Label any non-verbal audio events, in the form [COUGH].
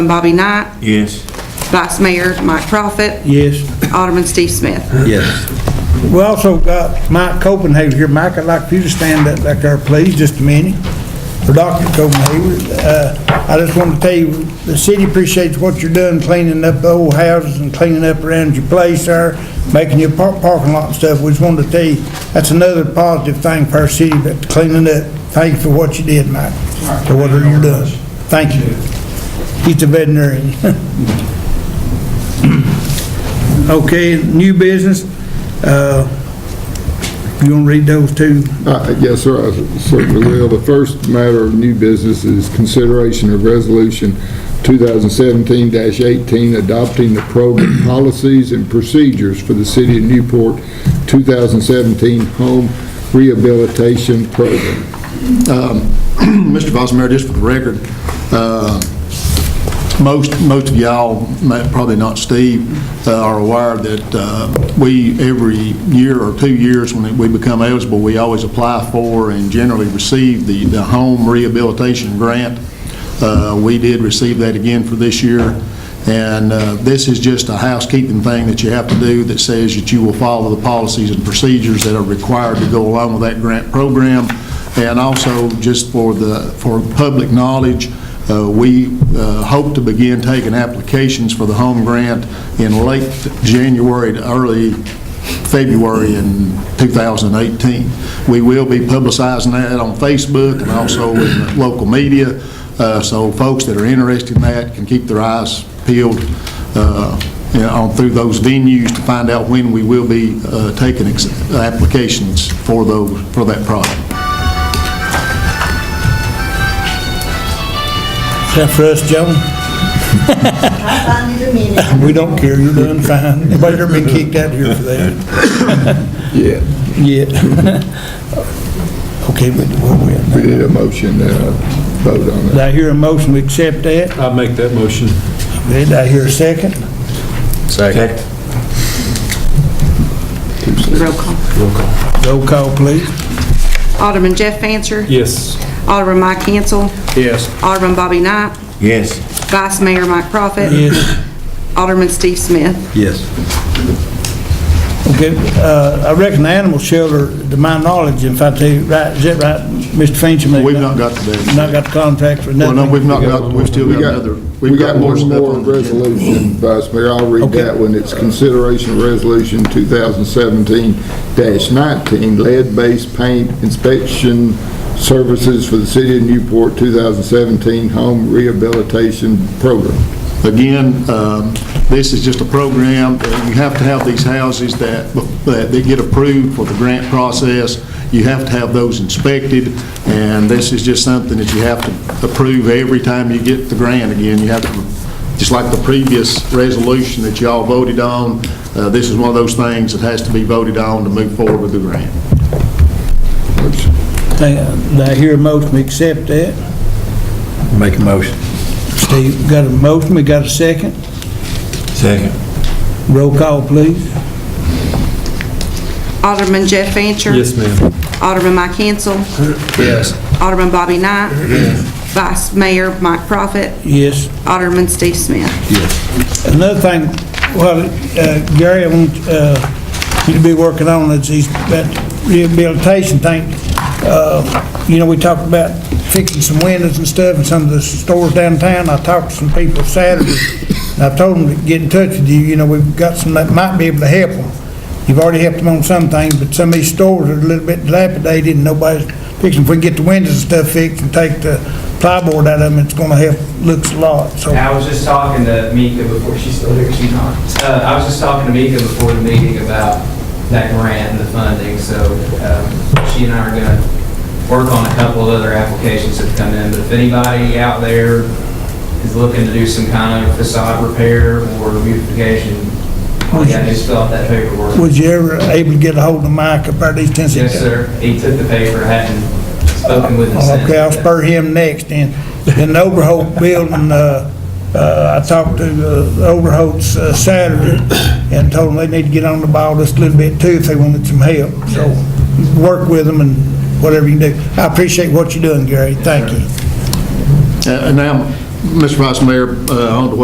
Bobby Knight, Yes. Vice Mayor Mike Profit, Yes. Alderman Steve Smith. Yes. We also got Mike Copenhagen here. Mike, I'd like for you to stand up back there, please, just a minute. For Dr. Copenhagen, uh, I just want to tell you, the city appreciates what you're doing, cleaning up the old houses and cleaning up around your place there, making your par- parking lot and stuff. We just wanted to tell you, that's another positive thing for our city, but cleaning up. Thank you for what you did, Mike, for what you're doing. Thank you. He's a veterinarian. [LAUGHS] Okay, new business, uh, you want to read those two? Uh, Yes, sir, I certainly will. The first matter of new business is consideration of Resolution 2017-18, adopting the program [CLEARS THROAT] policies and procedures for the City of Newport 2017 Home Rehabilitation Program. Mr. Vice Mayor, just for the record, uh, most, most of y'all, ma- probably not Steve, uh, are aware that uh, we, every year or two years, when we become eligible, we always apply for and generally receive the, the home rehabilitation grant. Uh, We did receive that again for this year. And uh, this is just a housekeeping thing that you have to do that says that you will follow the policies and procedures that are required to go along with that grant program. And also, just for the, for public knowledge, uh, we uh, hope to begin taking applications for the home grant in late January to early February in 2018. We will be publicizing that on Facebook and also in the local media, uh, so folks that are interested in that can keep their eyes peeled uh, you know, on through those venues to find out when we will be uh, taking ex- applications for those, for that project. Except for us, Joan. We don't care, you're doing fine. Everybody ever been kicked out here for that? Yeah, Yeah. Okay, but where we at now? we need a motion to vote on Did that. I hear a motion, we accept that? I make that motion. Did I hear a second? Second. Roll call. Roll call, please. Alderman Jeff Fancher. Yes. Alderman Mike Hansel. Yes. Alderman Bobby Knight, Yes. Vice Mayor Mike Profit. Alderman Steve Smith. Yes. Okay, uh, I reckon the animal shelter, to my knowledge, if I tell you right, is that right, Mr. Finch? We've not got to that. Not got the contract for Well, nothing? no, we've not got, we've still We got got, another, we got one stuff more on the agenda. resolution, Vice Mayor, I'll read Okay. that one. It's consideration of Resolution 2017-19, lead-based paint inspection services for the City of Newport 2017 Home Rehabilitation Program. Again, um, this is just a program, uh, you have to have these houses that, that they get approved for the grant process, you have to have those inspected, and this is just something that you have to approve every time you get the grant again, you have to, just like the previous resolution that y'all voted on, uh, this is one of those things that has to be voted on to move forward with the grant. Think- Did I hear a motion, we accept that? Make a motion. Steve, got a motion, we got a second? Second. Roll call, please. Alderman Jeff Fancher. Yes, ma'am. Alderman Mike Hansel. Yes. Alderman Bobby Knight. Vice Mayor Mike Profit. Yes. Alderman Steve Smith. Another thing, well, uh, Gary, I want uh, you to be working on is these, that rehabilitation thing. Uh, You know, we talked about fixing some windows and stuff in some of the stores downtown. I talked to some people Saturday, and I told them to get in touch with you, you know, we've got some that might be able to help them. You've already helped them on some things, but some of these stores are a little bit dilapidated, and nobody's fixing. If we can get the windows and stuff fixed and take the plywood out of them, it's gonna help, looks a lot, so. I was just talking to Mika before, she's still here, she's not. Uh, I was just talking to Mika before the meeting about that grant and the funding, so um, she and I are going to work on a couple of other applications that have come in, but if anybody out there is looking to do some kind of facade repair or beautification, all you got to do is fill out that paperwork. Was you ever able to get a hold of Mike about these ten Yes, sir, he took the paper, hadn't spoken with him since. Okay, I'll spur him next, and, and the Overholt building, uh, uh, I talked to uh, the Overholts uh, Saturday, and told them they need to get on the ball just a little bit too if they wanted some help, so, work with them and whatever you can do. I appreciate what you're doing, Gary, thank you. Uh, And now, Mr. Vice Mayor, uh, I don't know what